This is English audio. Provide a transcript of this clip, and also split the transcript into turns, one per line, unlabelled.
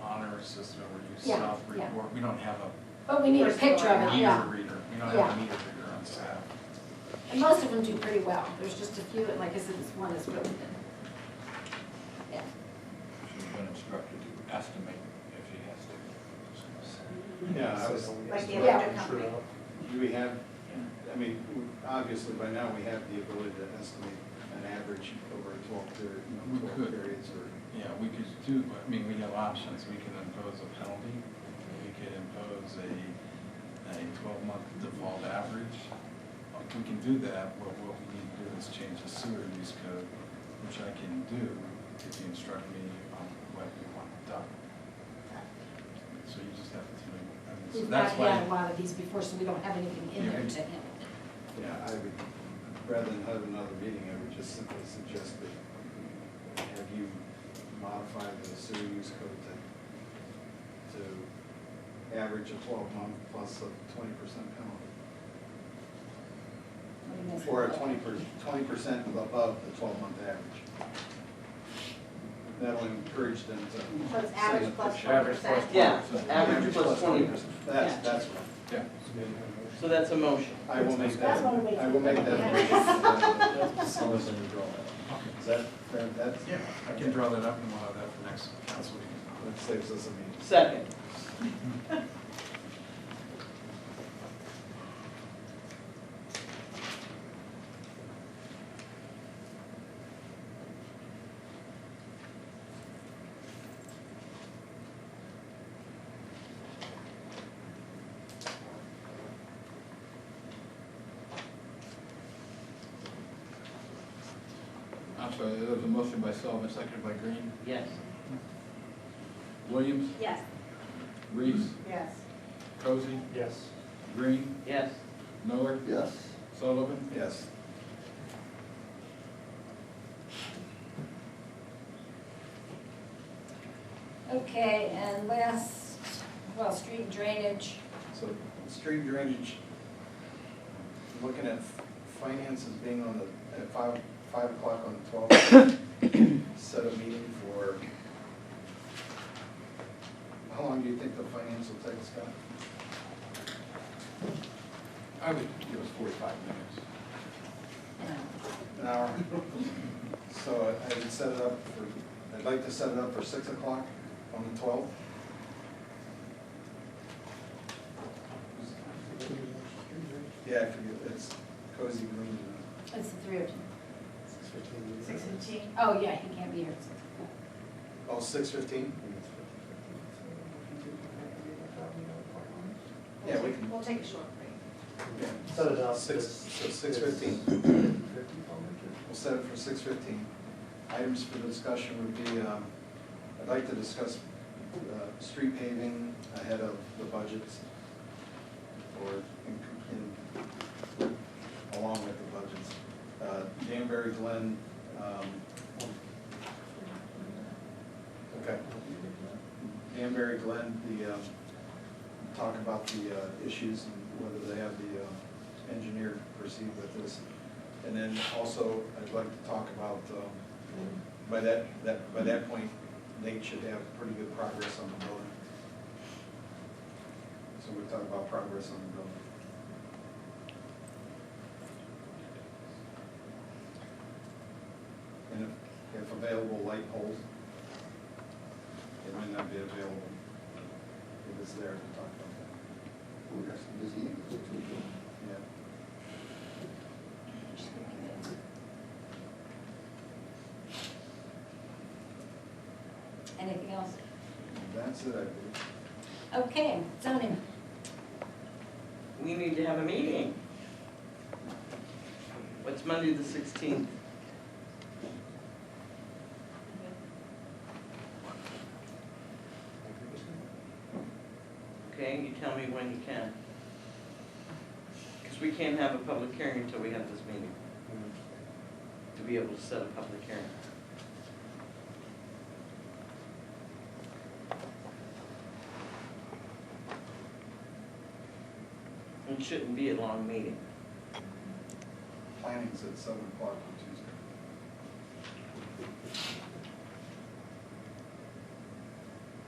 honor system where you
Yeah,
self
yeah.
report, we don't have a
But we need a
First
picture of it,
meter
yeah.
reader, we don't
Yeah.
have a meter reader on staff.
And most of them do pretty well. There's just a few, and like I said, this one is really good. Yeah.
She's been instructed to estimate if she has to.
Yeah, I was,
Like the
Yeah.
electric company.
do we have, I mean, we- obviously by now we have the ability to estimate an average over a twelve period, you
We
know, twelve
could.
periods or.
Yeah, we could do, but, I mean, we have options, we can impose a penalty, we could impose a, a twelve-month default average. If we can do that, what, what we need to do is change the sewer use code, which I can do if you instruct me on what you want done. So you just have to, I mean, so
We've
that's
not
why.
had a lot of these before, so we don't have anything in
Yeah,
there
we-
to handle.
Yeah, I would, rather than have another meeting, I would just simply suggest that have you modify the sewer use code to, to average a twelve month plus a twenty percent penalty.
What do you guys
Or a
think?
twenty per, twenty percent above the twelve month average. That'll encourage them to.
So it's average plus one
send a picture.
Average plus
percent.
Yeah, average plus twenty percent.
That's, that's right.
Yeah.
So that's a motion.
I will make
That's
that,
one way to
I will make
do it.
that.
Okay.
Is that, fair? that's,
Yeah, I can draw that up and we'll have that for next council meeting.
that saves us a meeting.
Second.
I'm sorry, there was a motion by Sullivan, seconded by Green.
Yes.
Williams,
Yes.
Reese,
Yes.
Cozy,
Yes.
Green,
Yes.
Miller,
Yes.
Sullivan.
Yes.
Okay, and last, well, street drainage.
So street drainage, looking at finances being on the, at five, five o'clock on the twelfth, set a meeting for, how long do you think the finance will take, Scott?
I would give us forty-five minutes.
An hour? So I would set it up for, I'd like to set it up for six o'clock on the twelfth. Yeah, it could be- it's cozy green.
It's the three of you.
Six fifteen.
Oh, yeah, he can't be here.
Oh, six fifteen? Yeah, we can-
We'll take a short break.
Yeah.
Set it up.
Six, so six fifteen. We'll set it for six fifteen. Items for discussion would be, um, I'd like to discuss uh, street paving ahead of the budgets or in, in, along with the budgets. Uh, Danbury Glen, um, okay. Danbury Glen, the, um, talk about the uh, issues and whether they have the uh, engineer proceed with this. And then also, I'd like to talk about, um, by that, that, by that point, Nate should have pretty good progress on the building. So we'll talk about progress on the building. And if, if available, light poles. It might not be available if it's there to talk about that.
We're just busy.
Yeah.
Anything else?
That's it, I believe.
Okay, zoning.
We need to have a meeting. What's Monday the sixteenth? Okay, you tell me when you can. Because we can't have a public hearing until we have this meeting, to be able to set a public hearing. It shouldn't be a long meeting.
Planning's at seven o'clock on